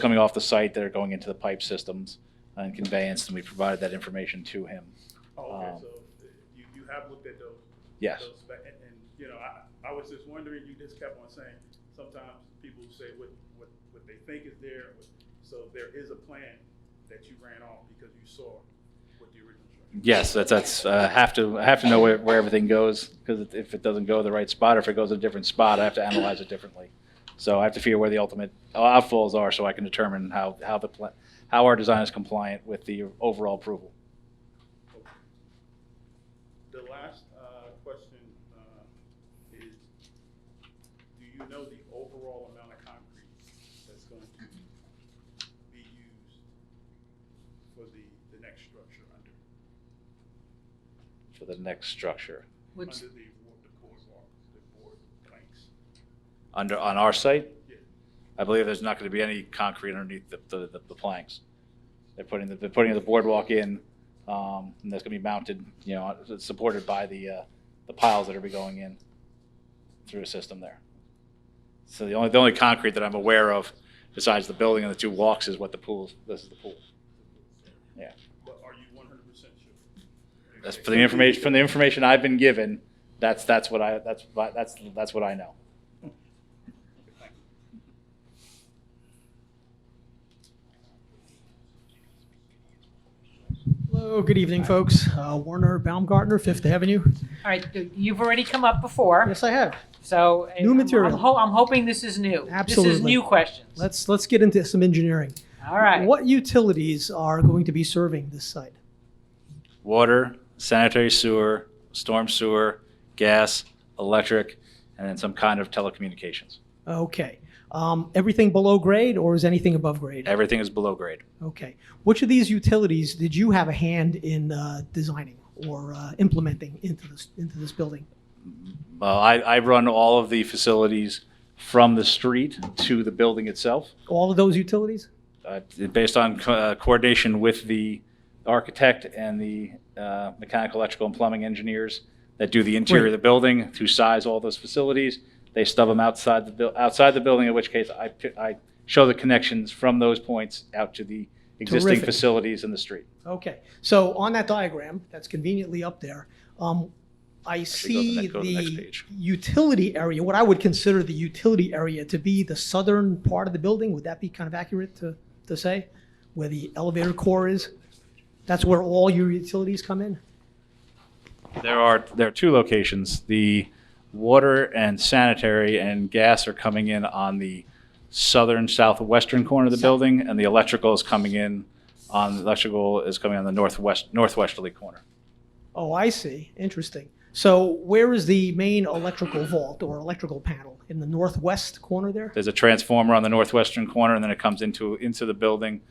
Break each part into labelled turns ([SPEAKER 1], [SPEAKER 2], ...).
[SPEAKER 1] coming off the site that are going into the pipe systems and conveyance, and we provided that information to him.
[SPEAKER 2] Oh, okay,
[SPEAKER 1] Um,
[SPEAKER 2] so you, you have looked at those?
[SPEAKER 1] Yes.
[SPEAKER 2] those fa- And, and, you know, I, I was just wondering, you just kept on saying, sometimes people say what, what, what they think is there. what- So there is a plan that you ran off because you saw what the original structure.
[SPEAKER 1] Yes, that's, that's, uh, have to, I have to know where, where everything goes, because if it doesn't go the right spot, or if it goes a different spot, I have to analyze it differently. So I have to figure where the ultimate outfalls are, so I can determine how, how the, pla- how our design is compliant with the overall approval.
[SPEAKER 2] The last, uh, question, uh, is, do you know the overall amount of concrete that's going to be used for the, the next structure under,
[SPEAKER 1] for the next structure.
[SPEAKER 3] Which,
[SPEAKER 2] under the, wa- the boardwalk, the board planks?
[SPEAKER 1] Under, on our site,
[SPEAKER 2] Yeah.
[SPEAKER 1] I believe there's not going to be any concrete underneath the, the, the- the planks. They're putting, the- they're putting the boardwalk in, um, and that's going to be mounted, you know, it's supported by the, uh, the piles that are be going in through a system there. So the only, the only concrete that I'm aware of, besides the building and the two walks, is what the pool, this is the pool. Yeah.
[SPEAKER 2] But are you one hundred percent sure?
[SPEAKER 1] That's for the information, from the information I've been given, that's, that's what I, that's, that's, that's what I know.
[SPEAKER 4] Hello, good evening, folks. Uh, Warner Baumgartner, Fifth Avenue.
[SPEAKER 3] all right, you've already come up before,
[SPEAKER 4] Yes, I have.
[SPEAKER 3] so.
[SPEAKER 4] New
[SPEAKER 3] I'm-
[SPEAKER 4] material.
[SPEAKER 3] I'm ho- I'm hoping this is new. This is
[SPEAKER 4] Absolutely.
[SPEAKER 3] new questions.
[SPEAKER 4] Let's, let's get into some engineering.
[SPEAKER 3] All right.
[SPEAKER 4] What utilities are going to be serving this site?
[SPEAKER 1] water, sanitary sewer, storm sewer, gas, electric, and then some kind of telecommunications.
[SPEAKER 4] Okay. Um, Everything below grade or is anything above grade?
[SPEAKER 1] Everything is below grade.
[SPEAKER 4] Okay. Which of these utilities did you have a hand in uh, designing or uh, implementing into this, into this building?
[SPEAKER 1] Well, Uh, I, I run all of the facilities from the street to the building itself,
[SPEAKER 4] All of those utilities?
[SPEAKER 1] uh, based on co- uh, coordination with the architect and the uh, mechanical, electrical, and plumbing engineers that do the interior of the building, who size all those facilities. They stub them outside the, buil- outside the building, in which case I, pi- I show the connections from those points out to the existing
[SPEAKER 4] Terrific.
[SPEAKER 1] facilities in the street.
[SPEAKER 4] Okay. So on that diagram, that's conveniently up there, um, I
[SPEAKER 1] Actually, go to the next-
[SPEAKER 4] see
[SPEAKER 1] go to the next
[SPEAKER 4] the
[SPEAKER 1] page.
[SPEAKER 4] utility area, what I would consider the utility area to be the southern part of the building. Would that be kind of accurate to, to say? Where the elevator core is? That's where all your utilities come in?
[SPEAKER 1] There are, there are two locations. The water and sanitary and gas are coming in on the southern southwestern corner of the building, and the electrical is coming in on, the electrical is coming on the northwest, northwesterly corner.
[SPEAKER 4] Oh, I see. Interesting. So where is the main electrical vault or electrical panel? In the northwest corner there?
[SPEAKER 1] There's a transformer on the northwestern corner, and then it comes into, into the building,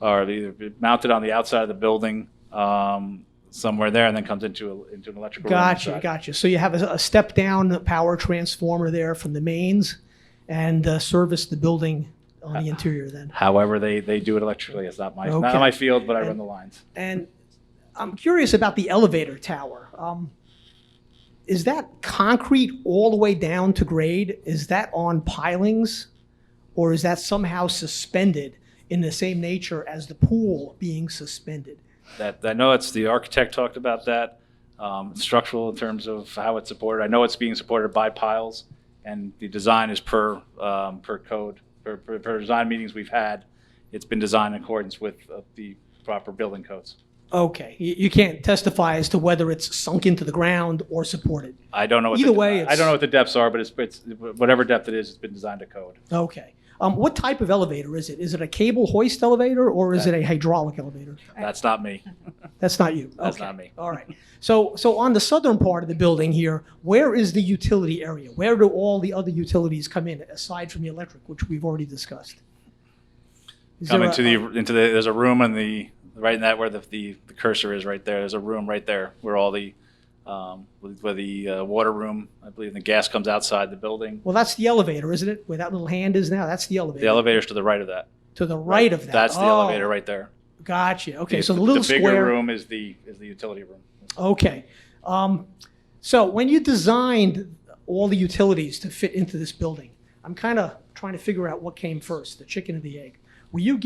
[SPEAKER 1] or either mounted on the outside of the building, um, somewhere there, and then comes into, a- into an electrical room
[SPEAKER 4] Gotcha,
[SPEAKER 1] inside.
[SPEAKER 4] gotcha. So you have a, a step down power transformer there from the mains and uh, service the building on the interior then.
[SPEAKER 1] However, they, they do it electrically. It's not my, not
[SPEAKER 4] Okay.
[SPEAKER 1] my field, but I run the lines.
[SPEAKER 4] And I'm curious about the elevator tower. Um, is that concrete all the way down to grade? Is that on pilings? Or is that somehow suspended in the same nature as the pool being suspended?
[SPEAKER 1] That, I know it's, the architect talked about that, um, structural in terms of how it's supported. I know it's being supported by piles, and the design is per, um, per code, per, per, per design meetings we've had. It's been designed in accordance with uh, the proper building codes.
[SPEAKER 4] Okay, you, you can't testify as to whether it's sunk into the ground or supported.
[SPEAKER 1] I don't know what. the-
[SPEAKER 4] Either way,
[SPEAKER 1] I
[SPEAKER 4] it's-
[SPEAKER 1] don't know what the depths are, but it's, it's, whatever depth it is, it's been designed to code.
[SPEAKER 4] Okay. Um, what type of elevator is it? Is it a cable hoist elevator or is it
[SPEAKER 1] Uh,
[SPEAKER 4] a hydraulic elevator?
[SPEAKER 1] That's not me.
[SPEAKER 4] That's not you.
[SPEAKER 1] That's
[SPEAKER 4] Okay.
[SPEAKER 1] not me.
[SPEAKER 4] All right. So, so on the southern part of the building here, where is the utility area? Where do all the other utilities come in aside from the electric, which we've already discussed? Is
[SPEAKER 1] Come
[SPEAKER 4] there
[SPEAKER 1] into
[SPEAKER 4] a- uh,
[SPEAKER 1] the, into the, there's a room in the, right in that where the, the the cursor is right there, there's a room right there where all the, um, where the uh, water room, I believe, and the gas comes outside the building.
[SPEAKER 4] Well, that's the elevator, isn't it? Where that little hand is now, that's the elevator.
[SPEAKER 1] The elevator's to the right of that.
[SPEAKER 4] to the right of that.
[SPEAKER 1] That's the
[SPEAKER 4] Oh,
[SPEAKER 1] elevator right there.
[SPEAKER 4] Gotcha. Okay, so the little
[SPEAKER 1] bigger
[SPEAKER 4] square.
[SPEAKER 1] room is the, is the utility room.
[SPEAKER 4] Okay. Um, so when you designed all the utilities to fit into this building, I'm kind of trying to figure out what came first, the chicken or the egg. Will you get